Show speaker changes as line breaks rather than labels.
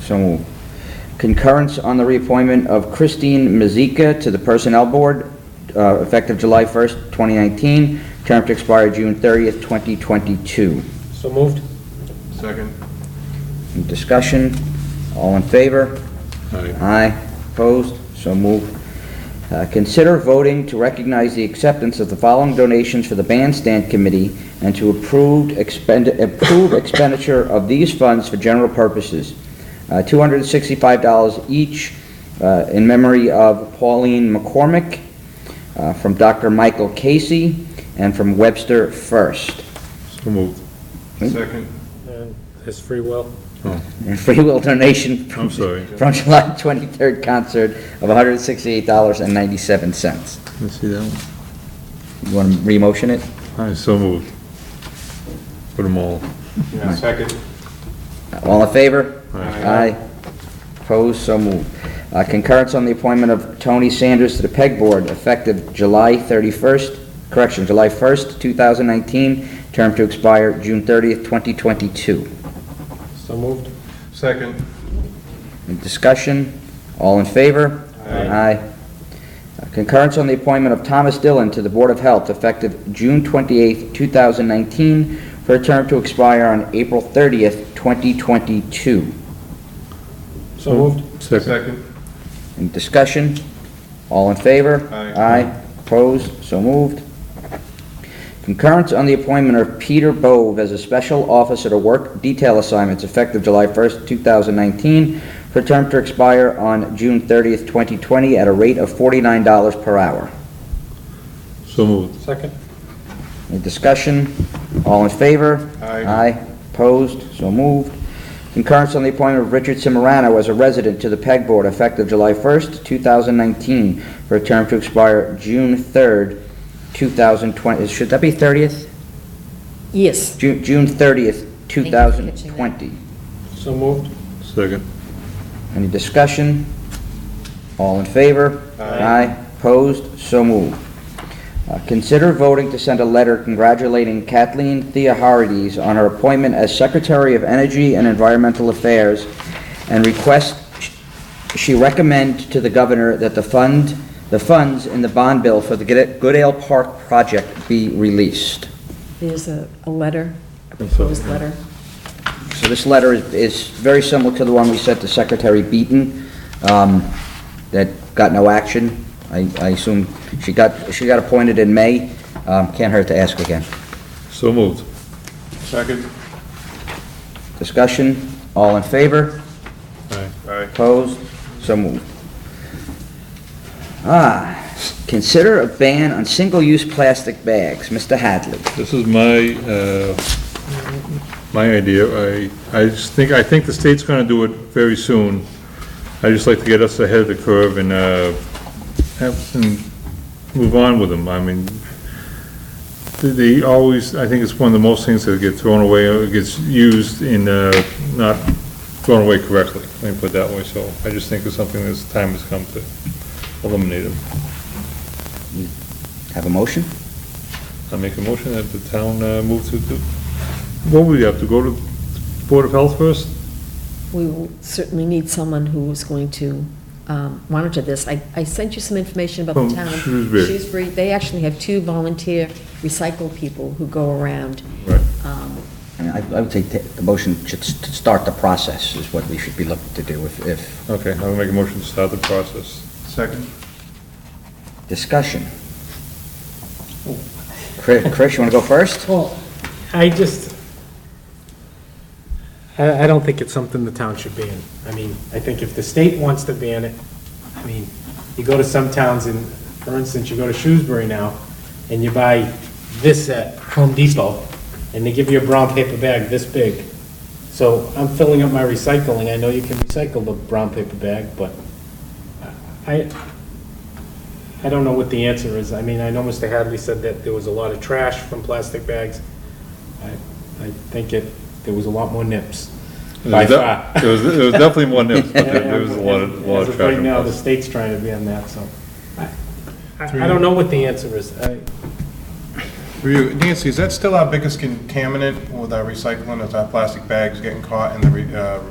So moved. Concurrence on the reappointment of Christine Mazika to the Personnel Board, uh, effective July 1st, 2019, term to expire June 30th, 2022.
So moved.
Second.
Any Discussion, all in favor?
Aye.
Aye. Opposed? So moved. Uh, Consider voting to recognize the acceptance of the following donations for the Bandstand Committee and to approved expend- approve expenditure of these funds for general purposes. Uh, $265 each uh, in memory of Pauline McCormick, uh, from Dr. Michael Casey, and from Webster First.
So moved. Second.
And It's free will.
And free will donation from
I'm sorry.
from July 23rd concert of $168.97.
Let's see that one.
You want to re-motion it?
Aye, so moved. Put them all.
Aye.
Second.
All in favor?
Aye.
Opposed, so moved. Uh, Concurrence on the appointment of Tony Sanders to the PEG Board effective July 31st, correction, July 1st, 2019, term to expire June 30th, 2022.
So moved.
Second.
Any discussion? All in favor?
Aye.
Aye. Concurrence on the appointment of Thomas Dillon to the Board of Health effective June 28th, 2019, for a term to expire on April 30th, 2022.
So moved.
Second.
Any discussion? All in favor?
Aye.
Opposed? So moved. Concurrence on the appointment of Peter Bove as a special officer to work detail assignments effective July 1st, 2019, for term to expire on June 30th, 2020, at a rate of $49 per hour.
So moved.
Second.
Any discussion? All in favor?
Aye.
Opposed? So moved. Concurrence on the appointment of Richard Simorano as a resident to the PEG Board effective July 1st, 2019, for a term to expire June 3rd, 2020. Should that be 30th?
Yes.
Ju- June 30th,
you for catching that.
2020.
So moved.
Second.
Any discussion? All in favor? Aye. Opposed? So moved. Uh, Consider voting to send a letter congratulating Kathleen Theoharides on her appointment as Secretary of Energy and Environmental Affairs and request she recommend to the governor that the fund, the funds in the bond bill for the Good- Goodale Park project be released.
There's a, a letter, a
That's all,
proposed
yeah.
letter.
So this letter is, is very similar to the one we sent to Secretary Beaton, um, that got no action. I, I assume she got, she got appointed in May. Um, can't hurt to ask again.
So moved. Second.
Discussion? All in favor?
Aye. Aye.
Opposed? So moved. Ah, consider a ban on single-use plastic bags. Mr. Hadley.
This is my, uh, my idea. I, I just think, I think the state's gonna do it very soon. I just like to get us ahead of the curve and, uh, have, and move on with them. I mean, they- they always, I think it's one of the most things that get thrown away, or gets used in, uh, not thrown away correctly, let me put it that way. So I just think it's something that's, time has come to eliminate them.
Have a motion?
I make a motion that the town uh, move to, to- what would we have to go to Board of Health first?
We will certainly need someone who is going to um, monitor this. I, I sent you some information about
From
the town.
Shrewsbury.
Shrewsbury, they actually have two volunteer recycle people who go around.
Right.
um,
I mean, I I would say ta- the motion should s- to start the process is what we should be looking to do if, if,
Okay, I will make a motion to start the process. Second.
discussion. Chris, Chris, you want to go first?
Well, I just, I, I don't think it's something the town should ban. I mean, I think if the state wants to ban it, I mean, you go to some towns in, for instance, you go to Shrewsbury now, and you buy this at Home Depot, and they give you a brown paper bag this big. So I'm filling up my recycling. I know you can recycle the brown paper bag, but I, I don't know what the answer is. I mean, I know Mr. Hadley said that there was a lot of trash from plastic bags. I, I think it, there was a lot more nips, by far.
There was, there was definitely one, there, but there there was a lot of, a lot
As
of
of right now, the
traffic.
state's trying to ban that, so. I- I, I don't know what the answer is. I,
For you, Nancy, is that still our biggest contaminant with our recycling, is our plastic bags getting caught in the re- uh,